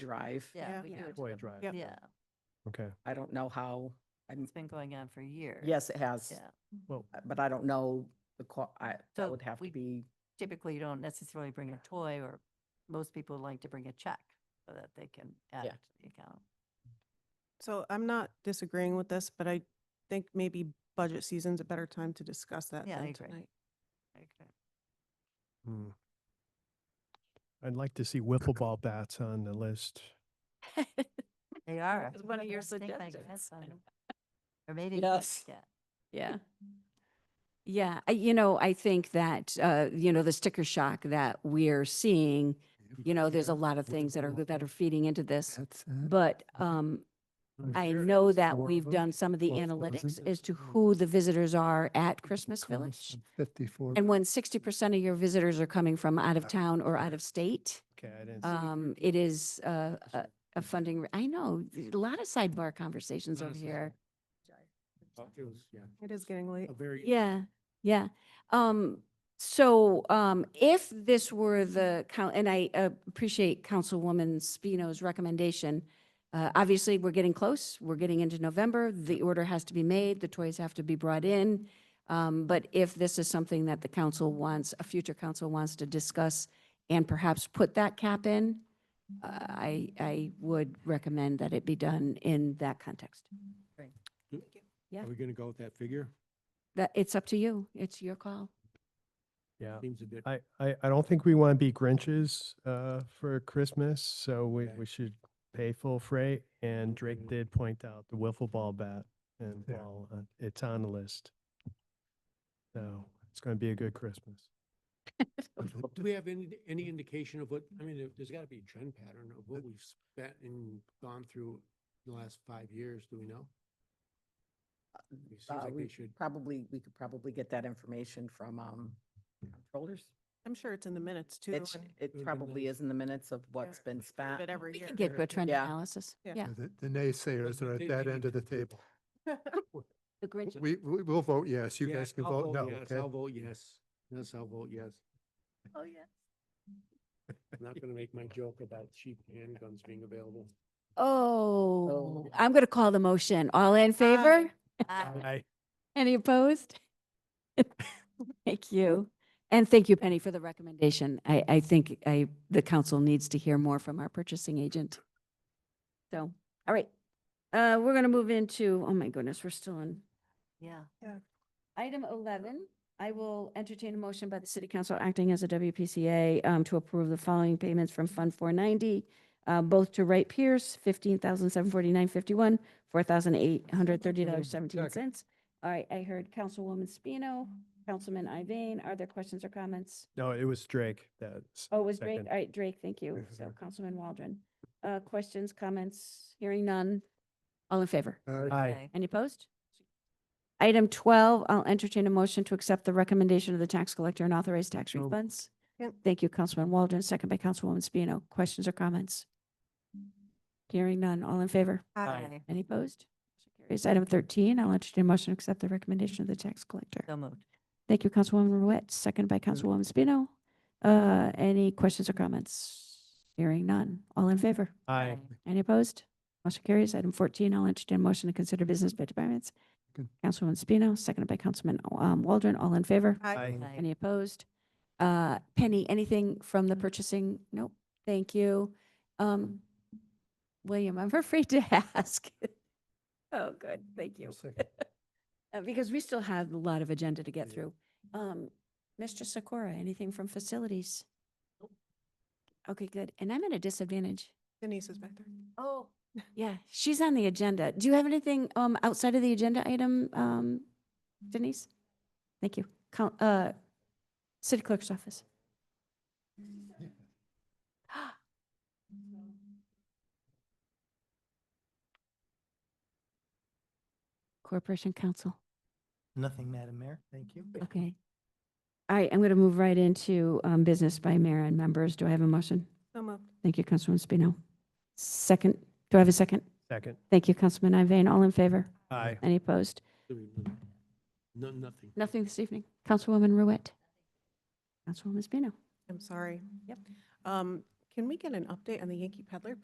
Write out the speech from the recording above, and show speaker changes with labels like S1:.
S1: drive.
S2: Yeah.
S3: Yeah, we
S2: Yeah.
S3: do it to
S4: Boy
S3: them.
S4: Drive.
S2: Yeah.
S3: Yeah,
S4: Okay,
S1: I don't know how, I'm,
S3: it's been going on for years.
S1: yes, it has,
S3: Yeah.
S4: well,
S1: uh, but I don't know the, co- I, that
S3: So
S1: would have to
S3: we-
S1: be,
S3: Typically, you don't necessarily bring a toy or most people like to bring a check so that they can add it
S1: Yeah.
S3: to the account.
S2: So I'm not disagreeing with this, but I think maybe budget season's a better time to discuss that
S3: Yeah, I
S2: than
S3: agree.
S2: tonight.
S4: hmm. I'd like to see wiffle ball bats on the list.
S3: They are.
S5: was one of your
S3: Think my
S5: suggestions.
S3: grandson- Or maybe.
S5: Yes.
S3: Yeah.
S5: Yeah. Yeah, I, you know, I think that, uh, you know, the sticker shock that we're seeing, you know, there's a lot of things that are, go- that are feeding into this. But, um, I know that we've done some of the
S6: Well, those
S5: analytics
S6: are-
S5: as to who the visitors are at Christmas Village.
S6: Fifty-four.
S5: And when sixty percent of your visitors are coming from out of town or out of state,
S4: Okay, I didn't. see-
S5: um, it is, uh, a, a funding, I know, a lot of sidebar conversations over here.
S2: It is getting
S4: Oh.
S2: late.
S5: Yeah, yeah. Um, so, um, if this were the coun, and I uh, appreciate Councilwoman Spino's recommendation. Uh, obviously, we're getting close. We're getting into November. The order has to be made. The toys have to be brought in. Um, but if this is something that the council wants, a future council wants to discuss and perhaps put that cap in, uh, I, I would recommend that it be done in that context. yeah.
S7: Are we gonna go with that figure?
S5: That, it's up to you. It's your call.
S4: Yeah,
S7: Seems a bit,
S4: I, I, I don't think we want to be Grinches, uh, for Christmas, so we,
S7: Okay.
S4: we should pay full freight. And Drake did point out the wiffle ball bat and
S6: Yeah.
S4: ball, uh, it's on the list. So it's going to be a good Christmas.
S7: do we have any, any indication of what, I mean, there- there's gotta be a trend pattern of what we've spent and gone through in the last five years, do we know? It seems
S1: uh,
S7: like
S1: we
S7: we should,
S1: probably, we could probably get that information from, um, controllers.
S2: I'm sure it's in the minutes too.
S1: It's,
S2: and
S7: would
S1: it
S7: be
S1: probably
S7: nice.
S1: is in the minutes of what's been
S2: we have
S1: spent.
S2: It every
S5: We
S2: year.
S5: can get to a trend
S1: Yeah.
S5: analysis.
S2: Yeah.
S5: Yeah.
S6: The the naysayers are at
S7: They-
S6: that
S7: they-
S6: end of the table.
S5: The Grinch.
S6: We, we will vote yes. You
S7: Yeah,
S6: guys can
S7: I'll
S6: vote no,
S7: yes, I'll
S6: okay?
S7: vote yes. Yes, I'll vote yes.
S3: Oh, yeah.
S7: I'm not gonna make my joke about cheap handguns being available.
S5: Oh,
S1: So-
S5: I'm going to call the motion. All in favor?
S3: Ah,
S4: I,
S5: Any opposed? Thank you. And thank you, Penny, for the recommendation. I, I think I, the council needs to hear more from our purchasing agent. So, all right. Uh, we're going to move into, oh my goodness, we're still in
S3: Yeah.
S5: Item 11, I will entertain a motion by the city council acting as a WPCA um, to approve the following payments from Fund 490, uh, both to Wright Pierce, $15,749.51, $4,830.17. All right, I heard Councilwoman Spino, Councilman Iveyne. Are there questions or comments?
S4: no, it was Drake that's.
S5: Oh, it was Drake?
S4: Second.
S5: All right, Drake, thank you.
S6: Yes,
S5: So
S6: sir.
S5: Councilman Waldron. Uh, Questions, comments? Hearing none. All in favor?
S6: Aye.
S4: Aye.
S3: Okay.
S5: Any opposed? Item 12, I'll entertain a motion to accept the recommendation of the tax collector and authorize tax
S4: So-
S5: refunds.
S2: Yep.
S5: Thank you, Councilman Waldron, second by Councilwoman Spino. Questions or comments? Hearing none. All in favor?
S3: Aye.
S5: Any opposed? Motion Carries item 13, I'll entertain a motion to accept the recommendation of the tax collector.
S3: So moved.
S5: Thank you, Councilwoman Ruette, second by Councilwoman Spino. Uh, Any questions or comments? Hearing none. All in favor?
S4: Aye.
S5: Any opposed? Motion carries. Item 14, I'll entertain a motion to consider business by departments.
S6: Good.
S5: Councilwoman Spino, seconded by Councilman um, Waldron. All in favor?
S2: Aye.
S3: Aye.
S5: Any opposed? Uh, Penny, anything from the purchasing? Nope. Thank you. Um, William, I'm afraid to ask. Oh, good. Thank you.
S6: I'll second.
S5: Uh, Because we still have a lot of agenda to get
S6: Yeah.
S5: through. Um, Mr. Sikora, anything from facilities? Okay, good. And I'm at a disadvantage.
S2: Denise is back there.
S5: Oh. Yeah, she's on the agenda. Do you have anything um outside of the agenda item, um Denise? Thank you. Coun- Uh, City Clerk's Office. Corporation Council.
S8: Nothing, Madam Mayor. Thank you.
S5: Okay. All right, I'm going to move right into um business by mayor and members. Do I have a motion?
S2: So moved.
S5: Thank you, Councilwoman Spino. Second, do I have a second?
S4: Second.
S5: Thank you, Councilman Iveyne. All in favor?
S4: Aye.
S5: Any opposed?
S7: No, nothing.
S5: Nothing this evening. Councilwoman Ruette. Councilwoman Spino.
S2: I'm sorry.
S5: Yep.
S2: Um, can we get an update on the Yankee Peddler,